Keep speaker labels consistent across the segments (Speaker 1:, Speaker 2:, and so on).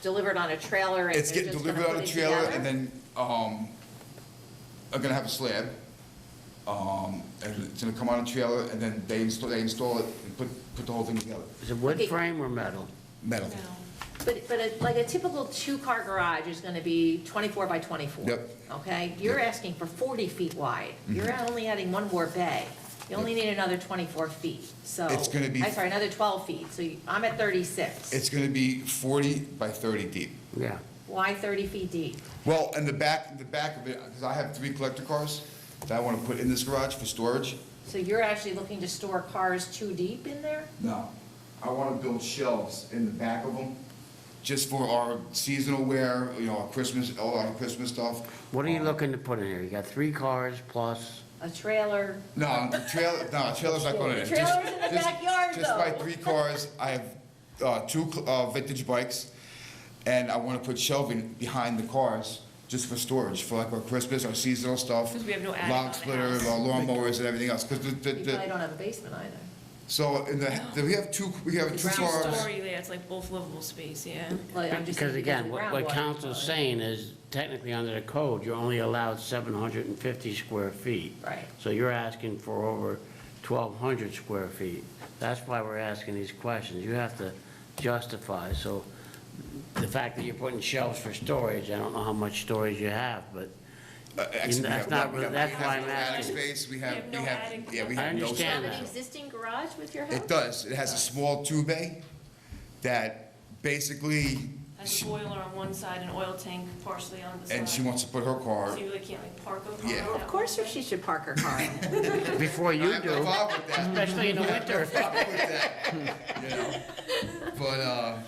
Speaker 1: delivered on a trailer and
Speaker 2: It's
Speaker 1: they're
Speaker 2: getting
Speaker 1: just gonna
Speaker 2: delivered on
Speaker 1: put
Speaker 2: a
Speaker 1: it
Speaker 2: trailer and
Speaker 1: together?
Speaker 2: then, um, I'm gonna have a slab. Um, and it's gonna come on a trailer and then they install, they install it and put, put the whole thing together.
Speaker 3: Is it wood
Speaker 1: Okay.
Speaker 3: frame or metal?
Speaker 2: Metal.
Speaker 1: But, but a- like a typical two-car garage is gonna be twenty-four by twenty-four.
Speaker 2: Yep.
Speaker 1: Okay, you're
Speaker 2: Yep. Mm-hmm.
Speaker 1: asking for forty feet wide, you're only adding one more bay, you only need another twenty-four feet, so.
Speaker 2: It's gonna be-
Speaker 1: I'm sorry, another twelve feet, so you- I'm at thirty-six.
Speaker 2: It's gonna be forty by thirty deep.
Speaker 3: Yeah.
Speaker 1: Why thirty feet deep?
Speaker 2: Well, and the back, the back of it, because I have three collector cars that I wanna put in this garage for storage.
Speaker 1: So you're actually looking to store cars too deep in there?
Speaker 2: No, I want to build shelves in the back of them, just for our seasonal wear, you know, our Christmas, all our Christmas stuff. Um,
Speaker 3: What are
Speaker 1: Oh.
Speaker 3: you looking to put in here? You got three cars plus,
Speaker 1: A trailer,
Speaker 2: No, the trailer, no, trailer's not going in.
Speaker 1: The trailer's in the
Speaker 2: Just- just-
Speaker 1: backyard,
Speaker 2: Just my
Speaker 1: though.
Speaker 2: three cars, I have uh, two cl- uh, vintage bikes, and I want to put shelving behind the cars, just for storage, for like our Christmas, our seasonal stuff.
Speaker 4: 'Cause we have no attic on
Speaker 2: Log
Speaker 4: the
Speaker 2: splitter,
Speaker 4: house.
Speaker 2: our lawnmowers and everything else, because the, the-
Speaker 1: you probably
Speaker 2: the,
Speaker 1: don't have a basement either.
Speaker 2: so in the, the- we have two, we have two
Speaker 4: Ground
Speaker 2: cars.
Speaker 4: story, yeah, it's like both livable space, yeah.
Speaker 1: Like, I'm just saying
Speaker 3: because again,
Speaker 1: of
Speaker 3: what what
Speaker 1: groundwater
Speaker 3: council's
Speaker 1: flow.
Speaker 3: saying is technically under the code, you're only allowed 750 square feet.
Speaker 1: Right.
Speaker 3: So you're asking for over 1,200 square feet. That's why we're asking these questions. You have to justify. So the fact that you're putting shelves for storage, I don't know how much storage you have, but
Speaker 2: Uh, actually, we
Speaker 3: that's
Speaker 2: have-
Speaker 3: not
Speaker 2: we
Speaker 3: really-
Speaker 2: have-
Speaker 3: that's
Speaker 2: we have
Speaker 3: why I'm
Speaker 2: no attic
Speaker 3: asking.
Speaker 2: Space, we have,
Speaker 4: We have
Speaker 2: we
Speaker 4: no
Speaker 2: have,
Speaker 4: attic.
Speaker 2: yeah, we
Speaker 3: I
Speaker 1: Do you have
Speaker 2: have no.
Speaker 3: understand
Speaker 2: space.
Speaker 1: an existing garage with your house?
Speaker 2: It does, it has a small two bay that basically,
Speaker 4: Has a
Speaker 2: she-
Speaker 4: boiler on one side, an oil tank partially on the side.
Speaker 2: and she wants to put her car.
Speaker 4: So you really can't like park over.
Speaker 2: Yeah.
Speaker 1: Well, Of course, if she should park her car. in it.
Speaker 3: before
Speaker 2: I
Speaker 3: you
Speaker 2: have no
Speaker 3: do,
Speaker 2: problem with that.
Speaker 3: especially in the winter.
Speaker 2: I have no problem with that, you know? But, uh,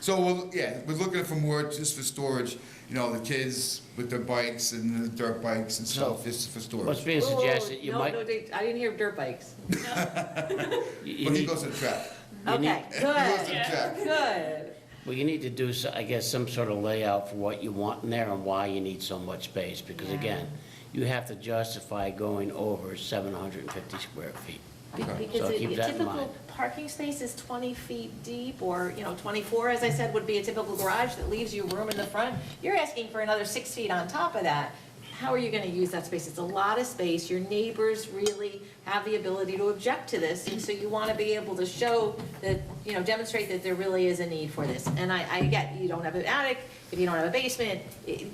Speaker 2: so, we'll- yeah, we're looking for more just for storage, you know, the kids with their bikes and the dirt bikes and stuff, just for
Speaker 3: What's
Speaker 2: storage.
Speaker 3: being
Speaker 1: Whoa, whoa,
Speaker 3: suggested, you
Speaker 1: Oh, no,
Speaker 3: might,
Speaker 1: no, they- I didn't hear dirt bikes.
Speaker 3: you- you
Speaker 2: But he
Speaker 3: need-
Speaker 2: goes to the track.
Speaker 3: You need-
Speaker 1: Okay,
Speaker 2: He goes to the
Speaker 1: good,
Speaker 2: track.
Speaker 1: good.
Speaker 3: Well, you need to do, so- I guess, some sort of layout for what you want in there and why you need so much space, because again, you have to justify going over 750 square feet.
Speaker 1: Be-
Speaker 2: Okay.
Speaker 1: Because
Speaker 3: So
Speaker 1: a
Speaker 3: keep
Speaker 1: a
Speaker 3: that in
Speaker 1: typical
Speaker 3: mind.
Speaker 1: parking space is 20 feet deep, or, you know, 24, as I said, would be a typical garage that leaves you room in the front. You're asking for another six feet on top of that. How are you going to use that space? It's a lot of space. Your neighbors really have the ability to object to this, and so you want to be able to show that, you know, demonstrate that there really is a need for this. And I, I get, you don't have an attic, if you don't have a basement, i- you-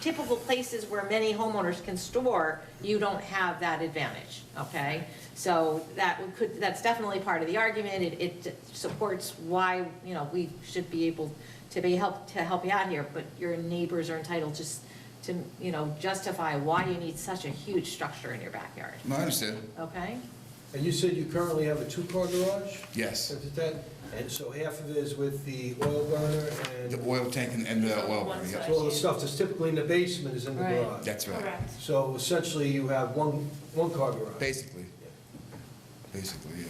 Speaker 1: typical places where many homeowners can store, you don't have that advantage, okay? So that would- could, that's definitely part of the argument, it, it supports why, you know, we should be able to be help, to help you out here, but your neighbors are entitled just to, you know, justify why you need such a huge structure in your backyard,
Speaker 2: No, I understand.
Speaker 1: okay?
Speaker 5: And you said you currently have a two-car garage?
Speaker 2: Yes.
Speaker 5: Is it that? And so half of it is with the oil burner
Speaker 2: The
Speaker 5: and
Speaker 2: oil tank and- and the oil burner, yeah.
Speaker 5: so all the stuff that's typically in the basement is in the
Speaker 1: Right.
Speaker 5: garage.
Speaker 2: That's right,
Speaker 4: Correct.
Speaker 5: So essentially, you have one, one-car garage,
Speaker 2: basically. Basically, yeah.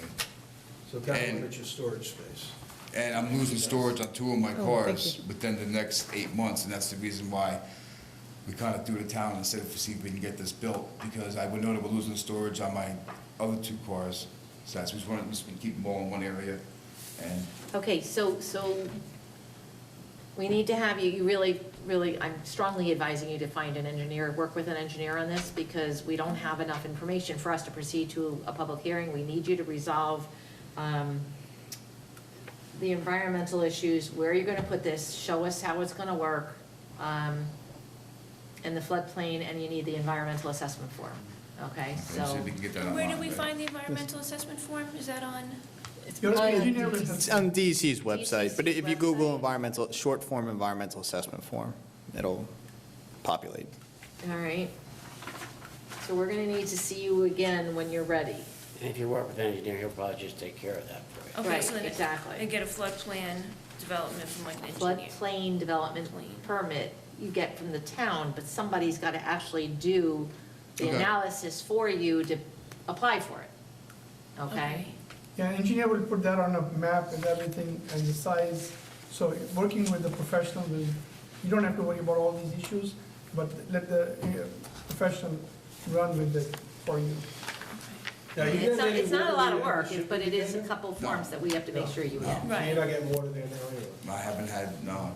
Speaker 5: so kind of
Speaker 2: And-
Speaker 5: limits your storage space.
Speaker 2: And I'm losing storage on two of
Speaker 1: Oh,
Speaker 2: my cars
Speaker 6: thank
Speaker 2: within the next eight months, and that's the reason why we kind of threw the town and said, if we see if we can get this built, because I would know that we're losing storage on my other two cars. So that's, we just wanted, just keep them all in one area, and
Speaker 1: Okay, so, so we need to have you, you really, really, I'm strongly advising you to find an engineer, work with an engineer on this because we don't have enough information for us to proceed to a public hearing. We need you to resolve um, the environmental issues, where you're going to put this, show us how it's going to work, um, and the floodplain, and you need the environmental assessment form, okay?
Speaker 2: see
Speaker 1: So,
Speaker 2: if we can get that online.
Speaker 4: Where do we
Speaker 2: but-
Speaker 4: find the environmental assessment form? Is that on?
Speaker 7: It's on DEC's website, but if you
Speaker 1: website.
Speaker 7: Google environmental, short form environmental assessment form, it'll populate.
Speaker 1: all right. So we're going to need to see you again when you're ready.
Speaker 3: And if you work with an engineer, he'll probably just take care of that for you.
Speaker 4: Okay, so
Speaker 1: Right,
Speaker 4: then it-
Speaker 1: exactly.
Speaker 4: And get a flood plan development from like an engineer.
Speaker 1: floodplain development permit you get from the town, but somebody's got to actually do the
Speaker 2: Okay.
Speaker 1: analysis for you to apply for it, okay?
Speaker 6: Yeah, engineer will put that on a map and everything and the size. So working with the professional will, you don't have to worry about all these issues, but let the uh, professional run with it for you.
Speaker 5: Now, you
Speaker 1: It's
Speaker 5: didn't
Speaker 1: not,
Speaker 5: really
Speaker 1: it's not a lot of
Speaker 5: really
Speaker 1: work,
Speaker 5: have-
Speaker 1: but it is a couple forms that we have to make sure you
Speaker 2: No.
Speaker 1: get.
Speaker 5: So
Speaker 4: Right.
Speaker 5: You're not getting water there now anyway.
Speaker 2: I haven't had, no,